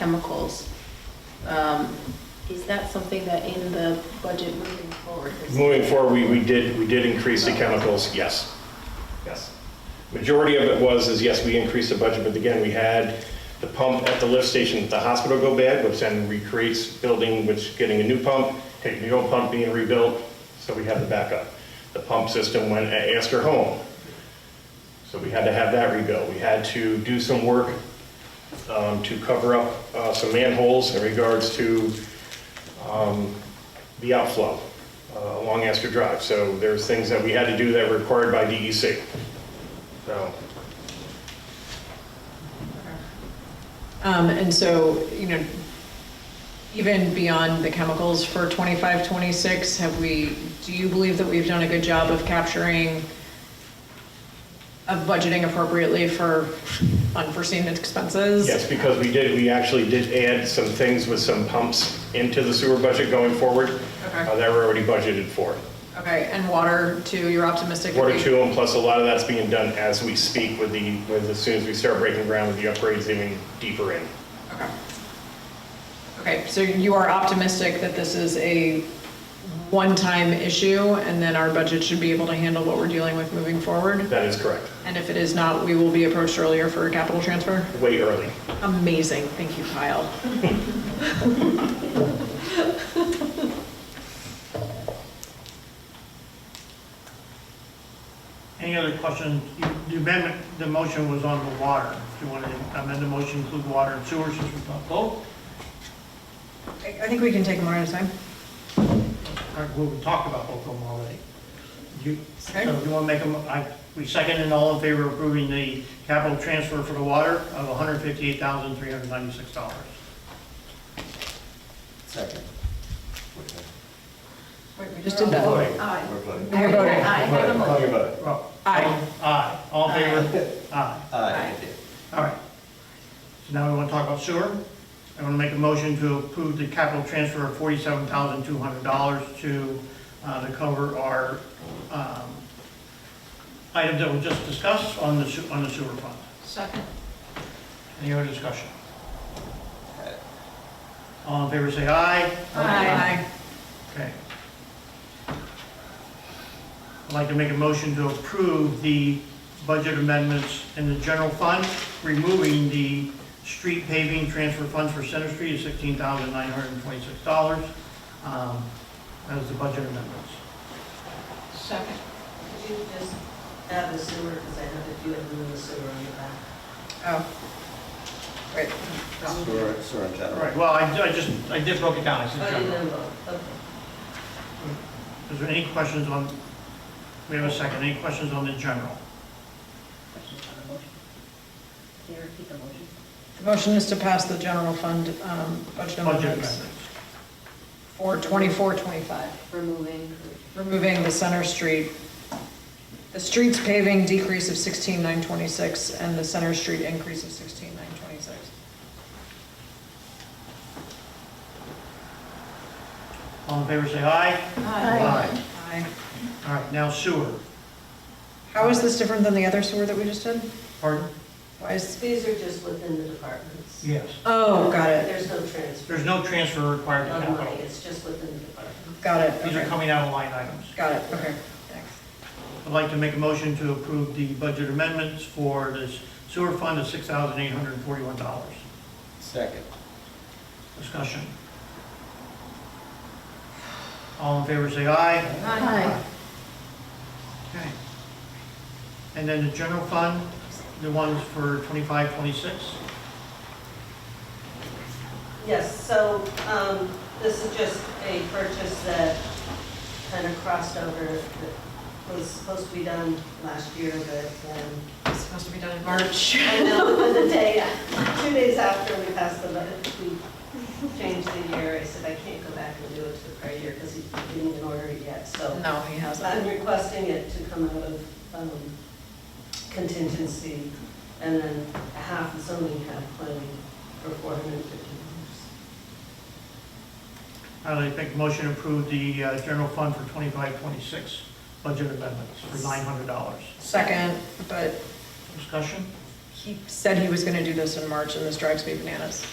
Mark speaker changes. Speaker 1: chemicals. Um, Is that something that in the budget moving forward? is-
Speaker 2: Moving forward, we, we did, we did increase the chemicals, yes. Yes. Majority of it was, is yes, we increased the budget, but again, we had the pump at the lift station at the hospital go bad, which then recreates building, which getting a new pump, taking the old pump being rebuilt, so we had the backup. The pump system went at Astor Home, so we had to have that rebuilt. We had to do some work um, to cover up uh, some manholes in regards to the outflow uh, along Astor Drive. So there's things that we had to do that were required by DEC. So
Speaker 3: Um, and so, you know, even beyond the chemicals for 25, 26, have we, do you believe that we've done a good job of capturing, of budgeting appropriately for unforeseen expenses?
Speaker 2: yes, because we did, we actually did add some things with some pumps into the sewer budget going forward uh, that were already budgeted for.
Speaker 3: Okay, and water too, you're optimistic? that
Speaker 2: Water
Speaker 3: we-
Speaker 2: to them, plus a lot of that's being done as we speak with the, with as soon as we start breaking ground with the upgrades even deeper in.
Speaker 3: Okay. Okay, so you are optimistic that this is a one-time issue and then our budget should be able to handle what we're dealing with moving forward?
Speaker 2: That is correct.
Speaker 3: And if it is not, we will be approached earlier for a capital transfer?
Speaker 2: Way early.
Speaker 3: Amazing, thank you, Kyle.
Speaker 4: Any other questions? You- The amendment, the motion was on the water. If you want to amend the motion, include water and sewer since we thought both.
Speaker 3: I think we can take them one at a time.
Speaker 4: All right, We talked about both of them already. You, so
Speaker 3: Okay.
Speaker 4: you want to make them, I, we second and all in favor of approving the capital transfer for the water of $158,396.
Speaker 5: Second.
Speaker 3: We just did that.
Speaker 1: Aye.
Speaker 5: We're voting.
Speaker 3: You're voting.
Speaker 1: Aye.
Speaker 5: Voting. Talking about it.
Speaker 4: Well,
Speaker 3: Aye.
Speaker 4: Aye, all in favor? Aye.
Speaker 5: Aye.
Speaker 4: All right. So now we want to talk about sewer. I want to make a motion to approve the capital transfer of forty-seven thousand two hundred dollars to, uh, to cover our, um, items that were just discussed on the, se- on the sewer fund.
Speaker 1: Second.
Speaker 4: Any other discussion? All in favor, say aye.
Speaker 3: Aye.
Speaker 4: Okay. I'd like to make a motion to approve the budget amendments in the general fund, removing the street paving transfer funds for Center Street of sixteen thousand nine hundred and twenty-six dollars, um, as the budget amendments.
Speaker 1: Second.
Speaker 6: Could you just add the sewer, because I know that you had moved the sewer on the back.
Speaker 3: Oh. Wait. no.
Speaker 5: Sewer, sewer in general.
Speaker 4: All right, well, I, I just, I did broke it down, I said
Speaker 6: Oh, you
Speaker 4: general.
Speaker 6: didn't vote, okay.
Speaker 4: Is there any questions on, we have a second, any questions on the general?
Speaker 6: Can you repeat the motion?
Speaker 3: The motion is to pass the general fund um, budget
Speaker 4: Budget
Speaker 3: amendments
Speaker 4: amendments.
Speaker 3: for 24, 25,
Speaker 1: Removing.
Speaker 3: removing the Center Street, the streets paving decrease of 16,926 and the Center Street increase of 16,926.
Speaker 4: All in favor, say aye. Aye.
Speaker 3: Aye.
Speaker 4: All right, now sewer,
Speaker 3: How is this different than the other sewer that we just did?
Speaker 4: pardon?
Speaker 3: Why is,
Speaker 6: These are just within the departments.
Speaker 4: Yes.
Speaker 3: oh, got it,
Speaker 6: There's no transfer
Speaker 4: There's no transfer required to
Speaker 6: of money,
Speaker 4: capital.
Speaker 6: it's just within the department.
Speaker 3: got it,
Speaker 4: These are
Speaker 3: okay.
Speaker 4: coming out of line items.
Speaker 3: Got it, okay, thanks.
Speaker 4: I'd like to make a motion to approve the budget amendments for this sewer fund of $6,841.
Speaker 5: Second.
Speaker 4: Discussion. All in favor, say aye.
Speaker 1: Aye.
Speaker 4: Okay. And then the general fund, the ones for 25, 26.
Speaker 6: Yes, so um, this is just a purchase that kind of crossed over, that was supposed to be done last year, but um
Speaker 3: It's supposed to be done in March.
Speaker 6: I know, but the day, two days after we passed the budget, we changed the year, I said, I can't go back and do it to the prior year because he didn't even order it yet, so
Speaker 3: No, he
Speaker 6: I'm
Speaker 3: hasn't.
Speaker 6: requesting it to come out of um, contingency and then half zoning, half planning for four hundred and fifty dollars.
Speaker 4: I'd like to make a motion to approve the uh, general fund for 25, 26 budget amendments for $900.
Speaker 3: Second, but
Speaker 4: Discussion?
Speaker 3: he said he was gonna do this in March, and this drives me bananas.